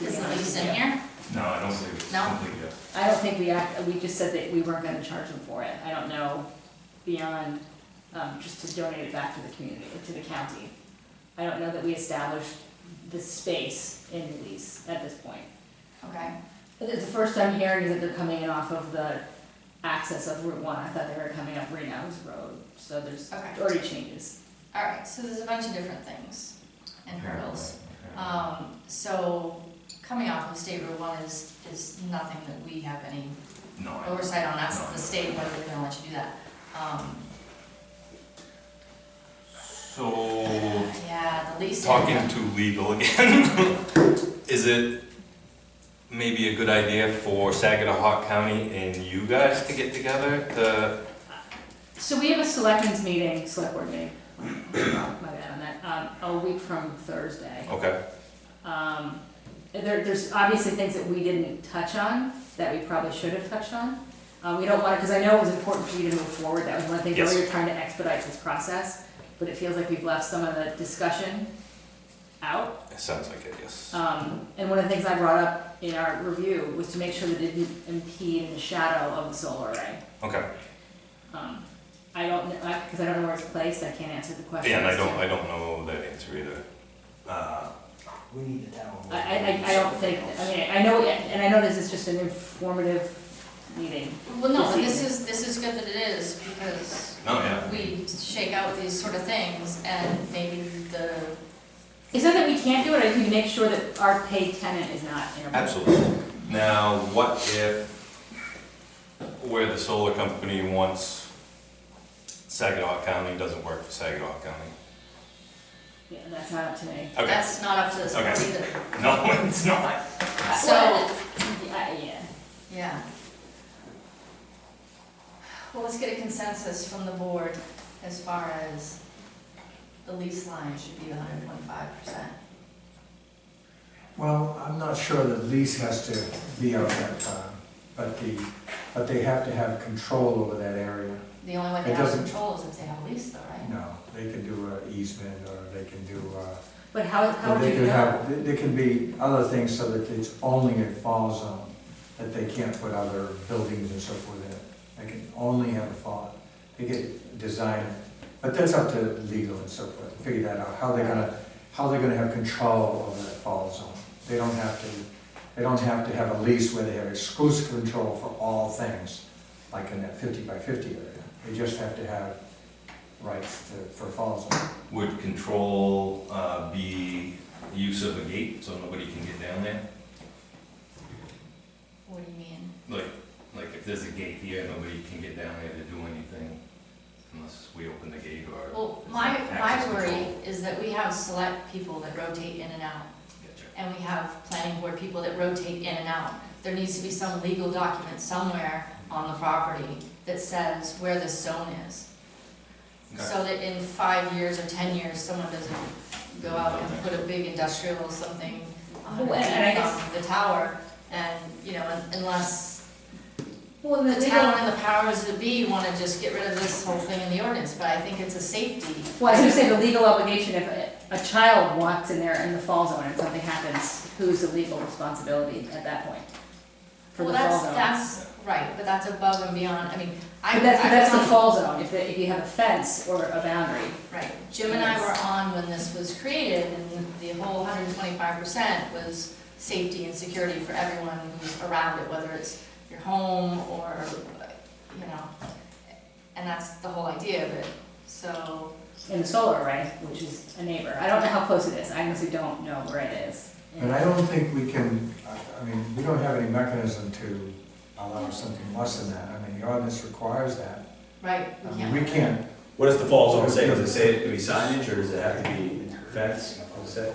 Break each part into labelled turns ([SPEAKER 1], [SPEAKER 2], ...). [SPEAKER 1] Is the lease in here?
[SPEAKER 2] No, I don't believe it's
[SPEAKER 1] No?
[SPEAKER 2] complete yet.
[SPEAKER 3] I don't think we act, we just said that we weren't gonna charge them for it. I don't know beyond, um, just to donate it back to the community, to the county. I don't know that we established the space in the lease at this point.
[SPEAKER 1] Okay.
[SPEAKER 3] But It's the first I'm hearing is that they're coming in off of the access of Route One. I thought they were coming up Reno's Road, so there's
[SPEAKER 1] Okay.
[SPEAKER 3] already changes.
[SPEAKER 1] All right, so there's a bunch of different things and hurdles.
[SPEAKER 2] Okay.
[SPEAKER 1] Um, so coming off of State Route One is, is nothing that we have any
[SPEAKER 2] No, I don't.
[SPEAKER 1] oversight on, that's the state, whether they're gonna let you do that. Um,
[SPEAKER 2] So,
[SPEAKER 1] yeah, the lease.
[SPEAKER 2] talking to legal again, is it maybe a good idea for Saginaw County and you guys to get together to,
[SPEAKER 3] So we have a selectmen's meeting, select board meeting, my bad on that, um, a week from Thursday.
[SPEAKER 2] okay,
[SPEAKER 3] Um, there, there's obviously things that we didn't touch on, that we probably should have touched on. Uh, we don't want, because I know it was important for you to move forward, that was one thing, we
[SPEAKER 2] Yes.
[SPEAKER 3] were trying to expedite this process, but it feels like we've left some of the discussion out.
[SPEAKER 2] it sounds like it, yes.
[SPEAKER 3] Um, and one of the things I brought up in our review was to make sure that it didn't impede the shadow of the solar array.
[SPEAKER 2] Okay,
[SPEAKER 3] Um, I don't, know because I don't know where it's placed, I can't answer the question.
[SPEAKER 2] yeah, and I don't, I don't know that answer either. Uh,
[SPEAKER 4] We need the town.
[SPEAKER 3] I, I, I- I don't think, I mean, I know, and I know this is just an informative meeting.
[SPEAKER 1] Well, no, but this is, this is good that it is, because
[SPEAKER 2] No, yeah.
[SPEAKER 1] we shake out these sort of things, and maybe the,
[SPEAKER 3] It's not that we can't do it, I think we make sure that our paid tenant is not in a.
[SPEAKER 2] Absolutely. Now, what if, where the solar company wants Saginaw County doesn't work for Saginaw County?
[SPEAKER 3] Yeah, that's not up to me.
[SPEAKER 2] Okay,
[SPEAKER 1] that's not up to this board
[SPEAKER 2] Okay.
[SPEAKER 1] either.
[SPEAKER 2] no, it's not.
[SPEAKER 1] So,
[SPEAKER 3] Yeah, yeah.
[SPEAKER 1] yeah. Well, let's get a consensus from the board as far as the lease line should be the hundred and twenty-five percent.
[SPEAKER 4] Well, I'm not sure the lease has to be out that time, but the, but they have to have control over that area.
[SPEAKER 1] The only way
[SPEAKER 4] It
[SPEAKER 1] they have
[SPEAKER 4] doesn't-
[SPEAKER 1] control is if they have a lease though, right?
[SPEAKER 4] No, they can do an easement, or they can do, uh,
[SPEAKER 3] But how, how
[SPEAKER 4] or
[SPEAKER 3] would
[SPEAKER 4] they
[SPEAKER 3] you
[SPEAKER 4] can
[SPEAKER 3] know?
[SPEAKER 4] have, there- there can be other things so that it's only a fall zone, that they can't put other buildings and so forth in it. They can only have a fall, they get designed, but that's up to legal and so forth, to figure that out, how they're gonna, how they're gonna have control over that fall zone. They don't have to, they don't have to have a lease where they have exclusive control for all things, like in that fifty by fifty area. They just have to have rights to, for fall zone.
[SPEAKER 2] Would control uh, be use of a gate so nobody can get down there?
[SPEAKER 1] What do you mean?
[SPEAKER 2] Like, like if there's a gate here, nobody can get down there to do anything unless we open the gate or.
[SPEAKER 1] Well,
[SPEAKER 2] there's
[SPEAKER 1] my,
[SPEAKER 2] no access
[SPEAKER 1] my worry
[SPEAKER 2] control.
[SPEAKER 1] is that we have select people that rotate in and out.
[SPEAKER 2] Gotcha.
[SPEAKER 1] and we have planning board people that rotate in and out. There needs to be some legal document somewhere on the property that says where this zone is. So that in five years or ten years, someone doesn't go out and put a big industrial or something on
[SPEAKER 3] Well, and I guess-
[SPEAKER 1] the tower. And, you know, un- unless
[SPEAKER 3] Well,
[SPEAKER 1] the
[SPEAKER 3] the
[SPEAKER 1] town
[SPEAKER 3] town,
[SPEAKER 1] and the powers that be wanna just get rid of this whole thing in the ordinance, but I think it's a safety.
[SPEAKER 3] well, I was gonna say the legal obligation, if a- a child walks in there in the fall zone and something happens, who's the legal responsibility at that point? For
[SPEAKER 1] Well,
[SPEAKER 3] the fall
[SPEAKER 1] that's,
[SPEAKER 3] zone.
[SPEAKER 1] that's, right, but that's above and beyond, I mean, I.
[SPEAKER 3] But that's, but
[SPEAKER 1] I
[SPEAKER 3] that's the
[SPEAKER 1] want-
[SPEAKER 3] fall zone, if, they- if you have a fence or a boundary.
[SPEAKER 1] Right, Jim and I were on when this was created, and the whole hundred and twenty-five percent was safety and security for everyone who's around it, whether it's your home or, you know, and that's the whole idea of it, so,
[SPEAKER 3] in the solar array, which is a neighbor. I don't know how close it is, I honestly don't know where it is.
[SPEAKER 4] And I don't think we can, I- I mean, we don't have any mechanism to allow something less than that. I mean, the ordinance requires that.
[SPEAKER 1] right,
[SPEAKER 4] I
[SPEAKER 1] we
[SPEAKER 4] mean,
[SPEAKER 1] can't.
[SPEAKER 4] we can't,
[SPEAKER 5] What does the fall zone say? Does it say it can be signage or does it have to be fence? What's that?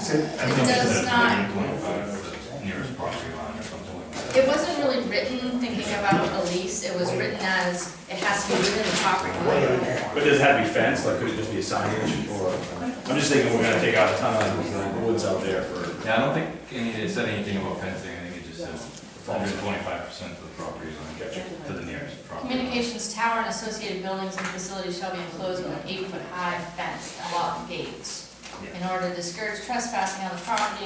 [SPEAKER 4] say-
[SPEAKER 1] It does not,
[SPEAKER 2] 25, the uh, Nearest property line or something like that.
[SPEAKER 1] it wasn't really written thinking about a lease, it was written as, it has to be within the property line.
[SPEAKER 5] But does it have to be fenced? Like, could it just be a signage or? I'm just thinking we're gonna take out a ton of woods out there for.
[SPEAKER 2] Yeah, I don't think any, it said anything about fencing, I think it just says hundred twenty-five percent of the property line to the nearest property. line.
[SPEAKER 1] Communications tower and associated buildings and facilities shall be enclosed with an eight-foot-high fence along gates.
[SPEAKER 2] Yeah.
[SPEAKER 1] In order to discourage trespassing on the property